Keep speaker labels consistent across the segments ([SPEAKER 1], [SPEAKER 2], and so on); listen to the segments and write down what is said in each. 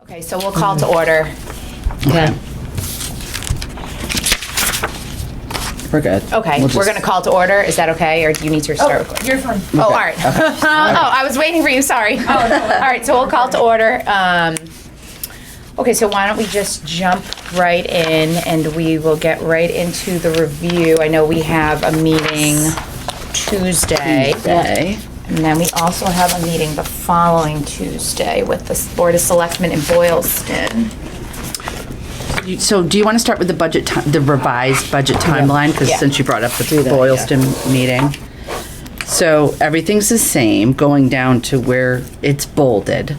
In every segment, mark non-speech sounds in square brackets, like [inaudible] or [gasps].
[SPEAKER 1] Okay, so we'll call to order.
[SPEAKER 2] Okay.
[SPEAKER 3] We're good.
[SPEAKER 1] Okay,
[SPEAKER 3] We'll
[SPEAKER 1] we're
[SPEAKER 3] just-
[SPEAKER 1] gonna call to order. Is that okay, or do you need to start? recording?
[SPEAKER 2] You're fine. Oh,
[SPEAKER 1] Oh, all right. [laughs] Oh, I was waiting for you, sorry. All [laughs] right, so we'll call to order. Um, Okay, so why don't we just jump right in, and we will get right into the review. I know we have a meeting Tuesday.
[SPEAKER 3] Day.
[SPEAKER 1] And then we also have a meeting the following Tuesday with the Board of Selectmen in Boylston.
[SPEAKER 3] You- So do you want to start with the budget, ti- the revised budget timeline? Because
[SPEAKER 1] Yeah.
[SPEAKER 3] since you brought up the Boylston meeting. So everything's the same, going down to where it's bolded.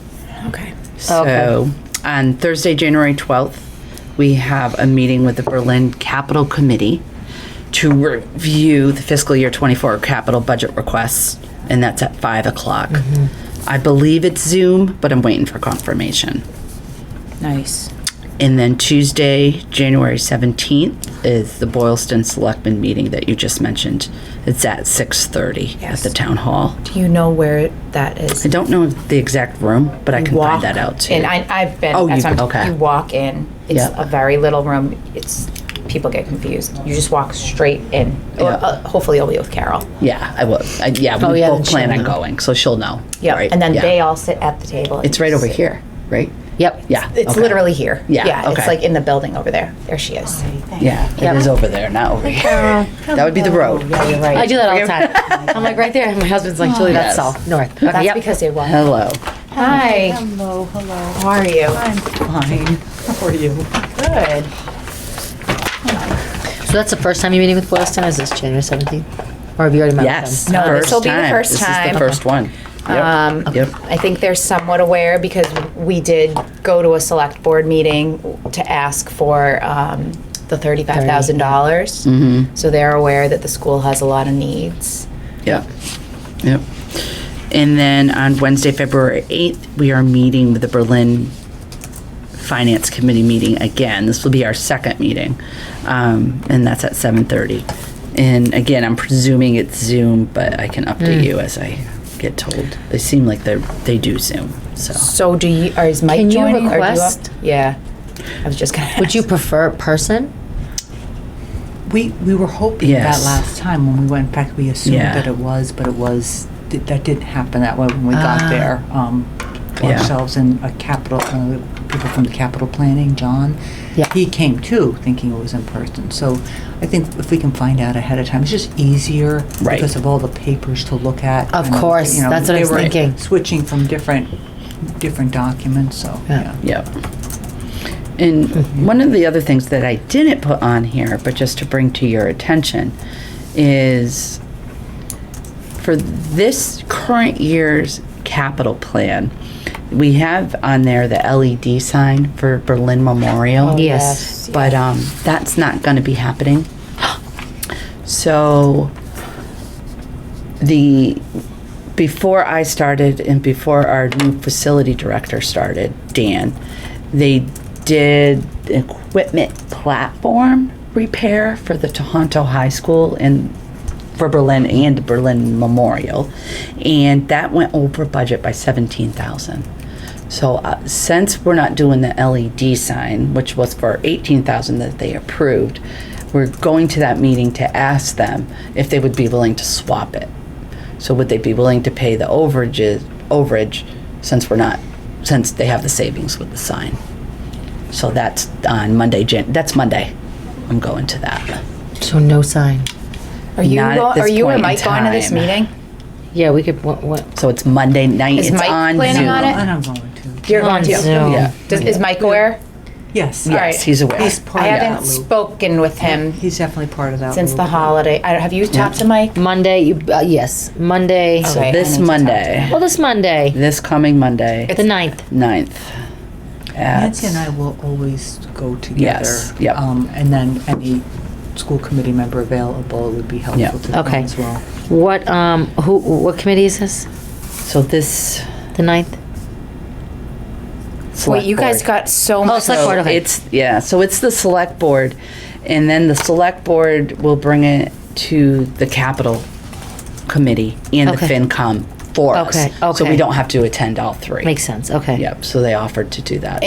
[SPEAKER 2] Okay.
[SPEAKER 3] So on Thursday, January 12th, we have a meeting with the Berlin Capital Committee to review the fiscal year 24 capital budget requests, and that's at 5 o'clock.
[SPEAKER 1] Mm-hmm.
[SPEAKER 3] I believe it's Zoom, but I'm waiting for confirmation.
[SPEAKER 2] Nice.
[SPEAKER 3] And then Tuesday, January 17th is the Boylston Selectmen meeting that you just mentioned. It's at 6:30 at the town hall.
[SPEAKER 1] Do you know where that is?
[SPEAKER 3] I don't know the exact room, but I can
[SPEAKER 1] walk
[SPEAKER 3] find that out too.
[SPEAKER 1] And I, I've been.
[SPEAKER 3] Oh,
[SPEAKER 1] that's
[SPEAKER 3] you've
[SPEAKER 1] what I'm-
[SPEAKER 3] been- okay.
[SPEAKER 1] You walk in. It's
[SPEAKER 3] Yeah.
[SPEAKER 1] a very little room. It's people get confused. You just walk straight in. Or,
[SPEAKER 3] Yeah.
[SPEAKER 1] uh, hopefully, you'll be with Carol.
[SPEAKER 3] Yeah, I will. I, yeah, we
[SPEAKER 2] Oh, yeah,
[SPEAKER 3] both
[SPEAKER 2] then
[SPEAKER 3] plan
[SPEAKER 2] she'll
[SPEAKER 3] on
[SPEAKER 2] know.
[SPEAKER 3] going, so she'll know.
[SPEAKER 1] Yeah,
[SPEAKER 3] right?
[SPEAKER 1] and then
[SPEAKER 3] Yeah.
[SPEAKER 1] they all sit at the table. and
[SPEAKER 3] It's right
[SPEAKER 1] you
[SPEAKER 3] over
[SPEAKER 1] sit.
[SPEAKER 3] here, right?
[SPEAKER 2] Yep.
[SPEAKER 3] Yeah.
[SPEAKER 1] It's
[SPEAKER 3] okay.
[SPEAKER 1] literally here.
[SPEAKER 3] Yeah,
[SPEAKER 1] yeah. It's
[SPEAKER 3] okay.
[SPEAKER 1] like in the building over there. There she is.
[SPEAKER 3] Yeah, it
[SPEAKER 2] Yep.
[SPEAKER 3] is over there, not over here. That would be the road.
[SPEAKER 1] Yeah, you're right.
[SPEAKER 2] I do that all the time. I'm like right there, and my husband's like, Julie, that's
[SPEAKER 3] Yes.
[SPEAKER 2] south, north. Okay,
[SPEAKER 1] That's
[SPEAKER 2] yep.
[SPEAKER 1] because they walk.
[SPEAKER 3] Hello.
[SPEAKER 1] Hi.
[SPEAKER 4] Hello, hello.
[SPEAKER 1] How are you?
[SPEAKER 4] I'm fine. How are you?
[SPEAKER 1] Good.
[SPEAKER 2] So that's the first time you're meeting with Boylston, is this January 17th? Or have you already met
[SPEAKER 3] Yes.
[SPEAKER 2] with them?
[SPEAKER 1] No,
[SPEAKER 3] first
[SPEAKER 1] this'll be the
[SPEAKER 3] time.
[SPEAKER 1] first
[SPEAKER 3] This is
[SPEAKER 1] time.
[SPEAKER 3] the first one. Yep.
[SPEAKER 1] Um,
[SPEAKER 3] Yep.
[SPEAKER 1] I think they're somewhat aware because we did go to a select board meeting to ask for um, the thirty-five thousand dollars.
[SPEAKER 3] Mm-hmm.
[SPEAKER 1] So they're aware that the school has a lot of needs.
[SPEAKER 3] Yep. Yep. And then on Wednesday, February 8th, we are meeting with the Berlin Finance Committee meeting again. This will be our second meeting, um, and that's at 7:30. And again, I'm presuming it's Zoom, but I can update you as I get told. They seem like they they do Zoom, so.
[SPEAKER 1] So do you, or is Mike
[SPEAKER 2] Can you
[SPEAKER 1] joining? or do have-
[SPEAKER 2] request-
[SPEAKER 1] Yeah, I was just gonna
[SPEAKER 2] Would you
[SPEAKER 1] ask.
[SPEAKER 2] prefer person?
[SPEAKER 4] We, we were hoping
[SPEAKER 3] Yes.
[SPEAKER 4] that last time when we went back, we assumed
[SPEAKER 3] Yeah.
[SPEAKER 4] that it was, but it was, that that didn't happen that way when we
[SPEAKER 2] Ah.
[SPEAKER 4] got there. Um,
[SPEAKER 3] Yeah.
[SPEAKER 4] Ourselves and a capital, uh, people from the capital planning, John.
[SPEAKER 2] Yeah.
[SPEAKER 4] He came too, thinking it was in person. So I think if we can find out ahead of time, it's just easier
[SPEAKER 3] Right.
[SPEAKER 4] because of all the papers to look at.
[SPEAKER 2] Of
[SPEAKER 4] and,
[SPEAKER 2] course,
[SPEAKER 4] you know,
[SPEAKER 2] that's what I
[SPEAKER 4] they
[SPEAKER 2] was
[SPEAKER 4] were
[SPEAKER 2] thinking.
[SPEAKER 4] Switching from different, different documents, so,
[SPEAKER 2] Yeah.
[SPEAKER 4] yeah.
[SPEAKER 3] Yep. And one of the other things that I didn't put on here, but just to bring to your attention, is for this current year's capital plan, we have on there the LED sign for Berlin Memorial.
[SPEAKER 2] Oh, Yes.
[SPEAKER 3] But um, that's not going to be happening. [gasps] So the before I started and before our new facility director started, Dan, they did equipment platform repair for the Tohoto High School and for Berlin and Berlin Memorial, and that went over budget by seventeen thousand. So uh, since we're not doing the LED sign, which was for eighteen thousand that they approved, we're going to that meeting to ask them if they would be willing to swap it. So would they be willing to pay the overages, overage, since we're not, since they have the savings with the sign? So that's on Monday, Jan, that's Monday. I'm going to that.
[SPEAKER 2] So no sign.
[SPEAKER 1] Are you,
[SPEAKER 3] Not at
[SPEAKER 1] go-
[SPEAKER 3] this
[SPEAKER 1] are you or
[SPEAKER 3] point in
[SPEAKER 1] Mike going to this
[SPEAKER 3] time.
[SPEAKER 1] meeting?
[SPEAKER 2] Yeah, we could, what, what?
[SPEAKER 3] So it's Monday night,
[SPEAKER 1] Is
[SPEAKER 3] it's
[SPEAKER 1] Mike
[SPEAKER 3] on
[SPEAKER 1] planning on
[SPEAKER 3] Zoom.
[SPEAKER 1] it?
[SPEAKER 4] And I'm going to.
[SPEAKER 1] You're
[SPEAKER 2] On
[SPEAKER 1] going to.
[SPEAKER 2] Zoom.
[SPEAKER 3] Yeah.
[SPEAKER 1] Does- Is Mike aware?
[SPEAKER 4] Yes.
[SPEAKER 1] All right.
[SPEAKER 3] Yes, he's aware.
[SPEAKER 4] He's
[SPEAKER 1] I
[SPEAKER 4] part of that
[SPEAKER 1] haven't
[SPEAKER 4] loop.
[SPEAKER 1] spoken with him
[SPEAKER 4] He's definitely part of that.
[SPEAKER 1] since the
[SPEAKER 4] loop.
[SPEAKER 1] holiday. I don't- Have you talked to Mike?
[SPEAKER 2] Monday, you, uh, yes, Monday.
[SPEAKER 3] So
[SPEAKER 1] Okay, I need
[SPEAKER 3] this
[SPEAKER 1] to talk to
[SPEAKER 3] Monday,
[SPEAKER 2] Well, this Monday,
[SPEAKER 3] this coming Monday,
[SPEAKER 2] the 9th.
[SPEAKER 3] ninth.
[SPEAKER 4] Nancy and I will always go together.
[SPEAKER 3] Yes, yep.
[SPEAKER 4] Um, and then any school committee member available would be
[SPEAKER 3] Yeah.
[SPEAKER 4] helpful to them
[SPEAKER 2] Okay.
[SPEAKER 4] as well.
[SPEAKER 2] What, um, who, what committee is this?
[SPEAKER 3] So this.
[SPEAKER 2] The 9th?
[SPEAKER 1] Wait, you guys
[SPEAKER 3] select board.
[SPEAKER 1] got so
[SPEAKER 2] Oh,
[SPEAKER 1] much.
[SPEAKER 2] select board,
[SPEAKER 3] So
[SPEAKER 2] okay.
[SPEAKER 3] It's, yeah, so it's the select board, and then the select board will bring it to the capital committee and the
[SPEAKER 2] Okay.
[SPEAKER 3] FinCom for us.
[SPEAKER 2] Okay,
[SPEAKER 3] So
[SPEAKER 2] okay.
[SPEAKER 3] we don't have to attend all three.
[SPEAKER 2] Makes sense, okay.
[SPEAKER 3] Yep, so they offered to do that.